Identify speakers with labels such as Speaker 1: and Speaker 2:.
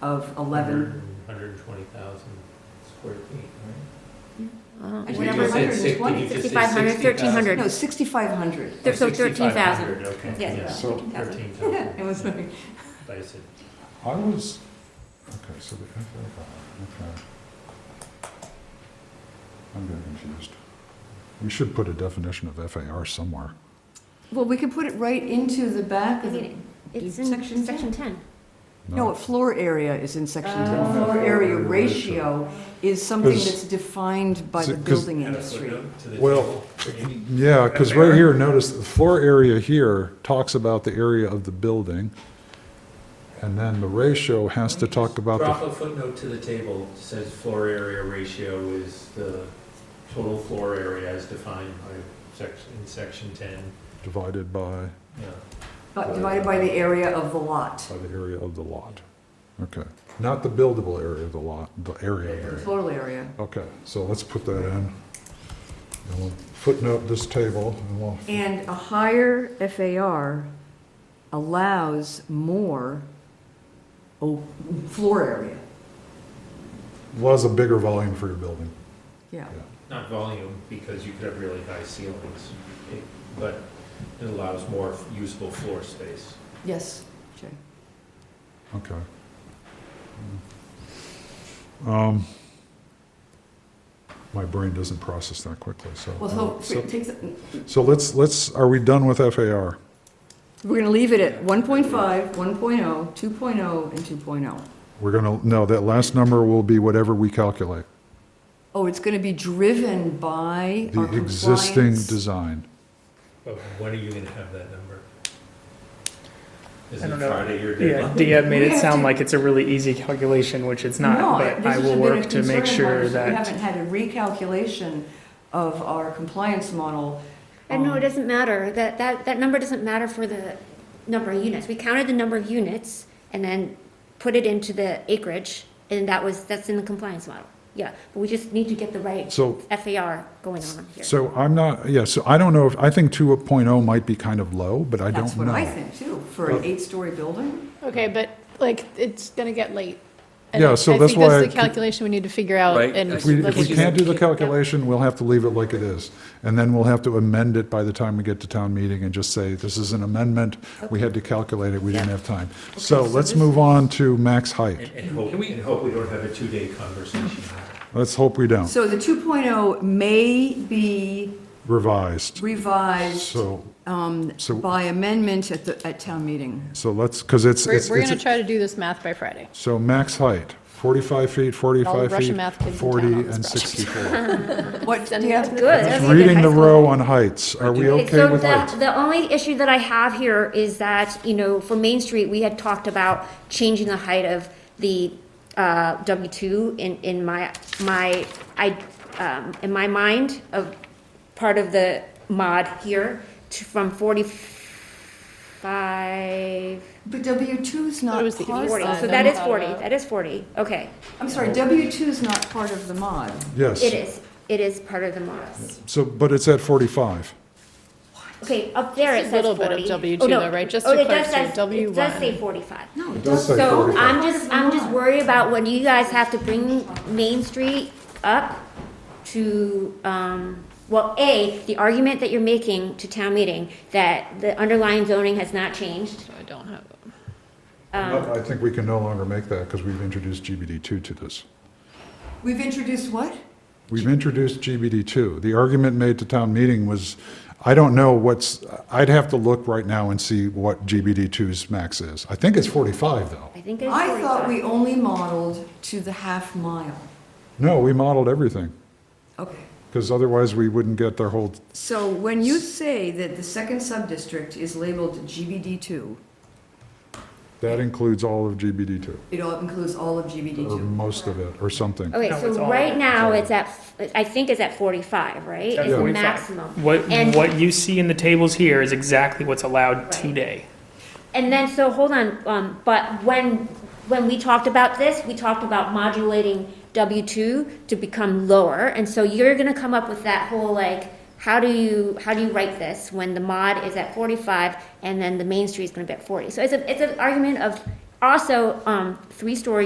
Speaker 1: of 11,
Speaker 2: 120,000 square feet,
Speaker 3: Uh,
Speaker 1: I
Speaker 2: right?
Speaker 1: just-
Speaker 3: whatever.
Speaker 1: Whatever.
Speaker 2: You just said
Speaker 1: 120.
Speaker 2: 60, you just said
Speaker 3: 6,500,
Speaker 2: 60,000.
Speaker 1: no, 6,500.
Speaker 3: There- so
Speaker 2: Oh,
Speaker 3: 13,000.
Speaker 2: 6,500, Okay,
Speaker 1: Yeah,
Speaker 2: yeah.
Speaker 4: So-
Speaker 1: 13,000.
Speaker 2: 13,000.
Speaker 1: It was like,
Speaker 2: But I said,
Speaker 4: I was, okay, so the, okay. I'm getting confused. We should put a definition of FAR somewhere.
Speaker 1: well, we could put it right into the back
Speaker 3: I
Speaker 1: of the
Speaker 3: mean, it's in
Speaker 1: Section
Speaker 3: section
Speaker 1: ten.
Speaker 3: 10.
Speaker 1: No, floor area is in section 10.
Speaker 3: Oh.
Speaker 1: Floor area ratio is something
Speaker 4: Because-
Speaker 1: that's defined by the
Speaker 4: 'cause-
Speaker 1: building
Speaker 2: add a
Speaker 1: industry.
Speaker 2: footnote to the
Speaker 4: Well,
Speaker 2: table. Any-
Speaker 4: Yeah, because right here, notice the floor area here talks about the area of the building. And then the ratio has to talk about
Speaker 2: Drop
Speaker 4: the,
Speaker 2: a footnote to the table, that says floor area ratio is the total floor area as defined by section, in section 10,
Speaker 4: divided by,
Speaker 2: yeah.
Speaker 1: But divided by the area of the lot,
Speaker 4: by the area of the lot. Okay, not the buildable area of the lot, the area of the
Speaker 1: the total area.
Speaker 4: Okay, so let's put that in. And we'll footnote this table, and we'll,
Speaker 1: And a higher FAR allows more o- floor area.
Speaker 4: allows a bigger volume for your building.
Speaker 1: Yeah,
Speaker 2: Not volume, because you could have really high ceilings, it- but it allows more usable floor space.
Speaker 1: yes, Jay.
Speaker 4: Okay. Um, My brain doesn't process that quickly, so.
Speaker 1: Well, so,
Speaker 4: So-
Speaker 1: take, the-
Speaker 4: So let's, let's, are we done with FAR?
Speaker 1: we're gonna leave it at 1.5, 1.0, 2.0, oh, and 2.0.
Speaker 4: We're gonna, no, that last number will be whatever we calculate,
Speaker 1: Oh, it's gonna be driven by
Speaker 4: the
Speaker 1: our
Speaker 4: existing
Speaker 1: compliance.
Speaker 4: design.
Speaker 2: But when are you gonna have that number? Is
Speaker 5: I
Speaker 2: it
Speaker 5: don't know.
Speaker 2: Friday your
Speaker 5: Yeah, uh,
Speaker 2: deadline?
Speaker 5: Dia made
Speaker 1: We
Speaker 5: it
Speaker 1: have
Speaker 5: sound
Speaker 1: to-
Speaker 5: like it's a really easy calculation, which it's not,
Speaker 1: No,
Speaker 5: but
Speaker 1: this
Speaker 5: I
Speaker 1: has
Speaker 5: will
Speaker 1: been a
Speaker 5: work to
Speaker 1: concern
Speaker 5: make
Speaker 1: of
Speaker 5: sure
Speaker 1: ours. We
Speaker 5: that,
Speaker 1: haven't had a recalculation of our compliance model.
Speaker 3: And no,
Speaker 4: Oh.
Speaker 1: Um,
Speaker 3: it doesn't matter. That, that, that number doesn't matter for the number of units. We counted the number of units and then put it into the acreage, and that was, that's in the compliance model. Yeah, but we just need to get the right
Speaker 4: So-
Speaker 3: FAR going on here.
Speaker 4: So I'm not, yeah, so I don't know if, I think 2.0 might be kind of low, but I don't know. Oh.
Speaker 1: That's what I think too, for an eight-story building.
Speaker 6: Okay, but like, it's gonna get late.
Speaker 4: Yeah, so that's why
Speaker 6: I
Speaker 4: I-
Speaker 6: think that's the calculation we need to figure out
Speaker 7: Right.
Speaker 6: and.
Speaker 4: If we, if
Speaker 6: let's
Speaker 4: we
Speaker 6: just
Speaker 4: can't do the
Speaker 6: keep-
Speaker 4: calculation, we'll have to leave it like it is. And then we'll have to amend it by the time we get to town meeting and just say, this is an amendment. We had to calculate it, we didn't have time. So let's move on to max height.
Speaker 2: And, and hope, and hope we don't have a two-day conversation.
Speaker 4: Let's hope we don't.
Speaker 1: So the 2.0 may be
Speaker 4: Revised.
Speaker 1: revised
Speaker 4: So,
Speaker 1: um,
Speaker 4: so-
Speaker 1: by amendment at the, at town meeting.
Speaker 4: so let's, because it's,
Speaker 6: We're,
Speaker 4: it's,
Speaker 6: we're gonna
Speaker 4: it's-
Speaker 6: try to do this math by Friday.
Speaker 4: so max height, 45 feet, 45
Speaker 6: Russian
Speaker 4: feet,
Speaker 6: math kids in town
Speaker 4: 40
Speaker 6: on this
Speaker 4: and
Speaker 6: project.
Speaker 4: 64.
Speaker 1: What, yeah,
Speaker 3: Good.
Speaker 4: Just
Speaker 3: that's a good
Speaker 4: reading
Speaker 3: high
Speaker 4: the
Speaker 3: school.
Speaker 4: row on heights. Are we
Speaker 3: Okay,
Speaker 4: okay
Speaker 3: so
Speaker 4: with
Speaker 3: the,
Speaker 4: heights?
Speaker 3: the only issue that I have here is that, you know, for Main Street, we had talked about changing the height of the, uh, W two in, in my, my, I, um, in my mind of part of the mod here to, from forty-five.
Speaker 1: but W2's
Speaker 6: Thought it
Speaker 1: not
Speaker 6: was the
Speaker 1: part
Speaker 6: east
Speaker 3: Forty,
Speaker 1: of
Speaker 6: side.
Speaker 3: so
Speaker 1: the,
Speaker 3: that is
Speaker 6: Uh,
Speaker 3: forty, that is forty, okay.
Speaker 1: I'm sorry, W2's not part of the mod.
Speaker 4: Yes.
Speaker 3: It is, it is part of the mod.
Speaker 4: So, but it's at 45.
Speaker 3: Okay, up there it
Speaker 6: Just a
Speaker 3: says
Speaker 6: little
Speaker 3: forty.
Speaker 6: bit of W2
Speaker 3: Oh, no,
Speaker 6: though, right? Just
Speaker 3: oh,
Speaker 6: to
Speaker 3: it does
Speaker 6: clarify,
Speaker 3: say- It
Speaker 6: W1.
Speaker 3: does say forty-five.
Speaker 1: No, it
Speaker 4: does
Speaker 1: doesn't.
Speaker 4: say
Speaker 3: So
Speaker 4: 45.
Speaker 3: I'm just, I'm just worried about when you guys have to bring Main Street up to, um, well, A, the argument that you're making to town meeting, that the underlying zoning has not changed.
Speaker 6: So I don't have,
Speaker 4: I think we can no longer make that because we've introduced GBD2 to this.
Speaker 1: We've introduced what?
Speaker 4: We've introduced GBD2. The argument made to town meeting was, I don't know what's, I'd have to look right now and see what GBD2's max is. I think it's 45, though.
Speaker 3: I think it's
Speaker 1: I thought we
Speaker 3: forty-five.
Speaker 1: only modeled to the half mile.
Speaker 4: No, we modeled everything,
Speaker 1: Okay.
Speaker 4: because otherwise we wouldn't get their whole,
Speaker 1: So when you say that the second sub-district is labeled GBD2,
Speaker 4: that includes all of GBD2,
Speaker 1: it all includes all of
Speaker 4: or
Speaker 1: GBD2.
Speaker 4: most of it, or something.
Speaker 3: Okay,
Speaker 5: No, it's
Speaker 3: so
Speaker 5: all-
Speaker 3: right now,
Speaker 4: all-
Speaker 3: it's at, f- I think it's at forty-five, right?
Speaker 5: at
Speaker 3: It's the
Speaker 5: 45.
Speaker 3: maximum.
Speaker 5: What,
Speaker 3: And-
Speaker 5: what you see in the tables here is exactly what's allowed
Speaker 3: Right.
Speaker 5: today.
Speaker 3: And then, so, hold on, um, but when, when we talked about this, we talked about modulating W two to become lower, and so you're gonna come up with that whole, like, how do you, how do you write this when the mod is at forty-five, and then the main street's gonna be at forty? So it's a, it's an argument of also, um, three-story